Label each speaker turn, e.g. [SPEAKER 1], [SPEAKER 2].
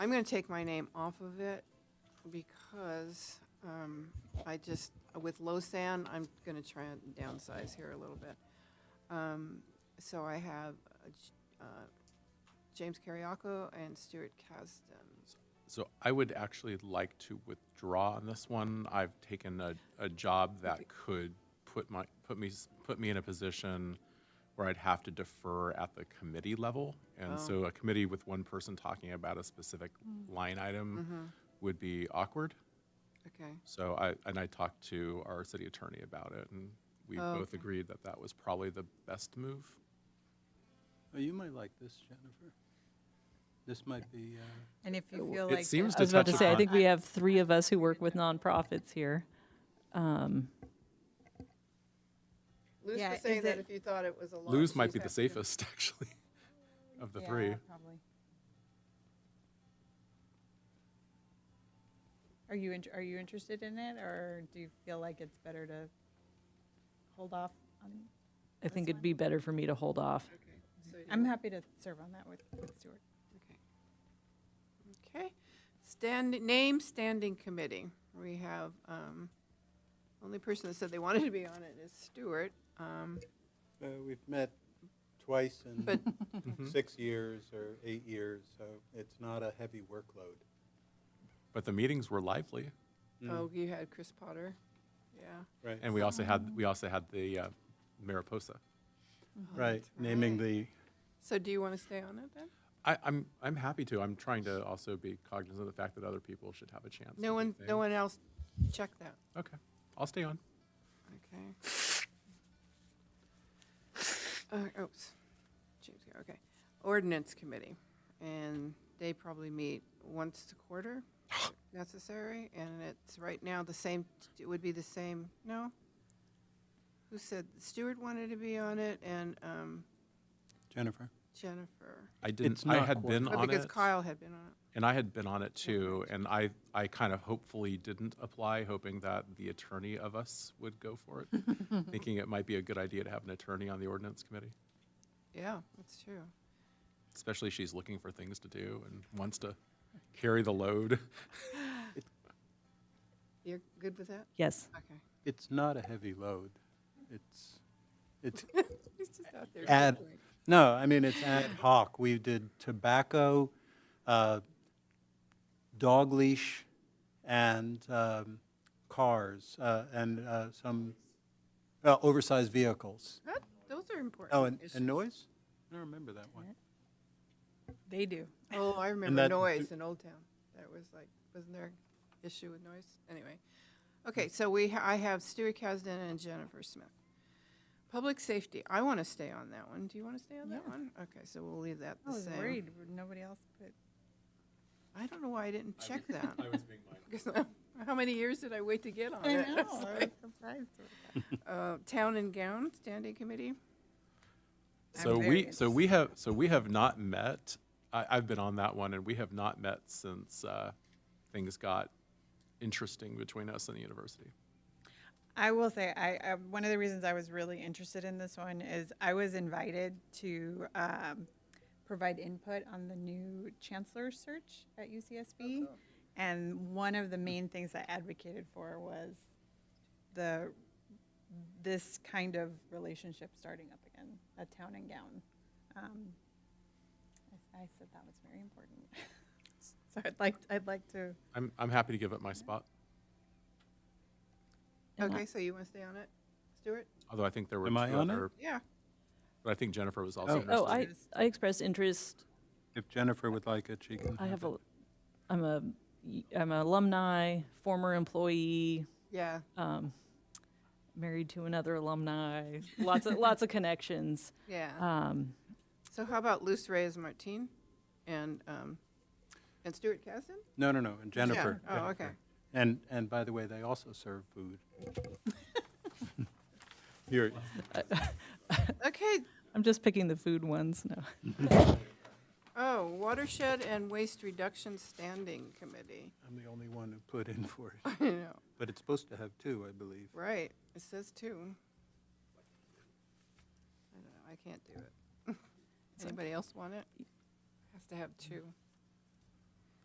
[SPEAKER 1] I'm gonna take my name off of it because, um, I just, with Losan, I'm gonna try and downsize here a little bit. Um, so I have, uh, J- uh, James Carriaco and Stuart Kasdan.
[SPEAKER 2] So I would actually like to withdraw on this one. I've taken a, a job that could put my, put me, s- put me in a position where I'd have to defer at the committee level. And so a committee with one person talking about a specific line item would be awkward.
[SPEAKER 1] Okay,
[SPEAKER 2] So I, and I talked to our city attorney about it and we
[SPEAKER 1] Oh,
[SPEAKER 2] both
[SPEAKER 1] okay.
[SPEAKER 2] agreed that that was probably the best move.
[SPEAKER 3] Oh, you might like this, Jennifer. This might be, uh,
[SPEAKER 4] And if you feel like.
[SPEAKER 2] It seems
[SPEAKER 5] I
[SPEAKER 2] to
[SPEAKER 5] was about
[SPEAKER 2] touch
[SPEAKER 5] to say, I
[SPEAKER 2] upon,
[SPEAKER 5] think we have three of us who work with nonprofits here.
[SPEAKER 1] Lou's
[SPEAKER 4] Yeah,
[SPEAKER 1] was
[SPEAKER 4] is
[SPEAKER 1] saying that
[SPEAKER 4] it-
[SPEAKER 1] if you thought it was a lot.
[SPEAKER 2] Lou's might
[SPEAKER 1] she's
[SPEAKER 2] be the
[SPEAKER 1] happy to-
[SPEAKER 2] safest actually of the three.
[SPEAKER 4] Are you, int- are you interested in it, or do you feel like it's better to hold off on?
[SPEAKER 5] I think it'd be better for me to hold off.
[SPEAKER 1] Okay, so you-
[SPEAKER 4] I'm happy to serve on that with, with Stuart.
[SPEAKER 1] Okay. Okay, stand, name standing committee. We have, um, only person that said they wanted to be on it is Stewart. Um,
[SPEAKER 3] uh, we've met twice in
[SPEAKER 1] But-
[SPEAKER 3] six years or eight years, so it's not a heavy workload.
[SPEAKER 2] But the meetings were lively. Mm.
[SPEAKER 1] oh, you had Chris Potter, yeah.
[SPEAKER 3] Right,
[SPEAKER 2] And we also had, we also had the uh, Mariposa.
[SPEAKER 3] right, naming the,
[SPEAKER 1] So do you want to stay on it then?
[SPEAKER 2] I, I'm, I'm happy to. I'm trying to also be cognizant of the fact that other people should have a chance. to
[SPEAKER 1] No
[SPEAKER 2] do
[SPEAKER 1] one,
[SPEAKER 2] things.
[SPEAKER 1] no one else checked that,
[SPEAKER 2] Okay, I'll stay on.
[SPEAKER 1] okay. Uh, oops, James here, okay. Ordinance committee, and they probably meet once a quarter if necessary, and it's right now the same, it would be the same, no? Who said, Stewart wanted to be on it and, um,
[SPEAKER 3] Jennifer.
[SPEAKER 1] Jennifer.
[SPEAKER 2] I didn't,
[SPEAKER 3] It's
[SPEAKER 2] I
[SPEAKER 3] not
[SPEAKER 2] had been
[SPEAKER 1] Oh,
[SPEAKER 2] on
[SPEAKER 1] Because
[SPEAKER 2] it,
[SPEAKER 1] Kyle had been on it.
[SPEAKER 2] and I had been on it too, and I, I kind of hopefully didn't apply, hoping that the attorney of us would go for it, thinking it might be a good idea to have an attorney on the ordinance committee,
[SPEAKER 1] Yeah, that's true.
[SPEAKER 2] especially she's looking for things to do and wants to carry the load.
[SPEAKER 1] You're good with that?
[SPEAKER 5] Yes.
[SPEAKER 1] Okay.
[SPEAKER 3] It's not a heavy load. It's, it's,
[SPEAKER 1] He's just out there.
[SPEAKER 3] Add-
[SPEAKER 1] juggling.
[SPEAKER 3] no, I mean, it's ad hoc. We did tobacco, uh, dog leash, and um, cars, uh, and uh, some uh, oversized vehicles.
[SPEAKER 1] That- Those are important.
[SPEAKER 3] Oh, and,
[SPEAKER 1] issues.
[SPEAKER 3] and noise? I don't remember that one.
[SPEAKER 4] They do.
[SPEAKER 1] Oh, I remember
[SPEAKER 3] that-
[SPEAKER 1] noise in Old Town. That was like, wasn't there an issue with noise? Anyway. Okay, so we, ha- I have Stuart Kasdan and Jennifer Smith. Public safety, I want to stay on that one. Do you want to stay on that
[SPEAKER 4] Yeah.
[SPEAKER 1] one? Okay, so we'll leave that
[SPEAKER 4] I
[SPEAKER 1] the
[SPEAKER 4] was
[SPEAKER 1] same.
[SPEAKER 4] worried, nobody else put.
[SPEAKER 1] I don't know why I didn't check that.
[SPEAKER 2] I was being mindful.
[SPEAKER 1] 'Cause How many years did I wait to get on it?
[SPEAKER 4] I was surprised. with that.
[SPEAKER 1] Uh, Town and Gown Standing Committee?
[SPEAKER 4] I'm
[SPEAKER 2] So
[SPEAKER 4] very
[SPEAKER 2] we, so we have, so we have not met, I, I've been on that one, and we have not met since, uh, things got interesting between us and the university.
[SPEAKER 4] I will say, I, I, one of the reasons I was really interested in this one is I was invited to, um, provide input on the new chancellor search at UCSB. And one of the main things I advocated for was the, this kind of relationship starting up again, a town and gown. Um, I, I said that was very important. So I'd like, I'd like to,
[SPEAKER 2] I'm, I'm happy to give up my spot,
[SPEAKER 5] And I-
[SPEAKER 1] Okay, so you want to stay on it, Stuart?
[SPEAKER 2] although I think there were two
[SPEAKER 3] Am I on it?
[SPEAKER 2] other,
[SPEAKER 1] Yeah.
[SPEAKER 2] but I think Jennifer was
[SPEAKER 3] Oh.
[SPEAKER 2] also
[SPEAKER 3] Oh,
[SPEAKER 5] Oh,
[SPEAKER 2] interested.
[SPEAKER 5] I, I expressed interest.
[SPEAKER 3] If Jennifer would like it, she can.
[SPEAKER 5] I have
[SPEAKER 3] it.
[SPEAKER 5] a, I'm a, I'm an alumni, former employee,
[SPEAKER 1] Yeah,
[SPEAKER 5] married to another alumni, lots of, lots of connections.
[SPEAKER 1] yeah.
[SPEAKER 5] Um,
[SPEAKER 1] So how about Luz Reyes Martin and, um, and Stuart Casden?
[SPEAKER 3] No, no, no, and Jennifer.
[SPEAKER 1] Oh,
[SPEAKER 3] Jennifer.
[SPEAKER 1] okay.
[SPEAKER 3] And, and by the way, they also serve food. Here,
[SPEAKER 1] Okay,
[SPEAKER 5] I'm just picking the food ones, no.
[SPEAKER 1] oh, Watershed and Waste Reduction Standing Committee.
[SPEAKER 3] I'm the only one who put in for it,
[SPEAKER 1] I know,
[SPEAKER 3] but it's supposed to have two, I believe.
[SPEAKER 1] right, it says two. I don't know, I can't do it. Anybody else want it? Has to have two.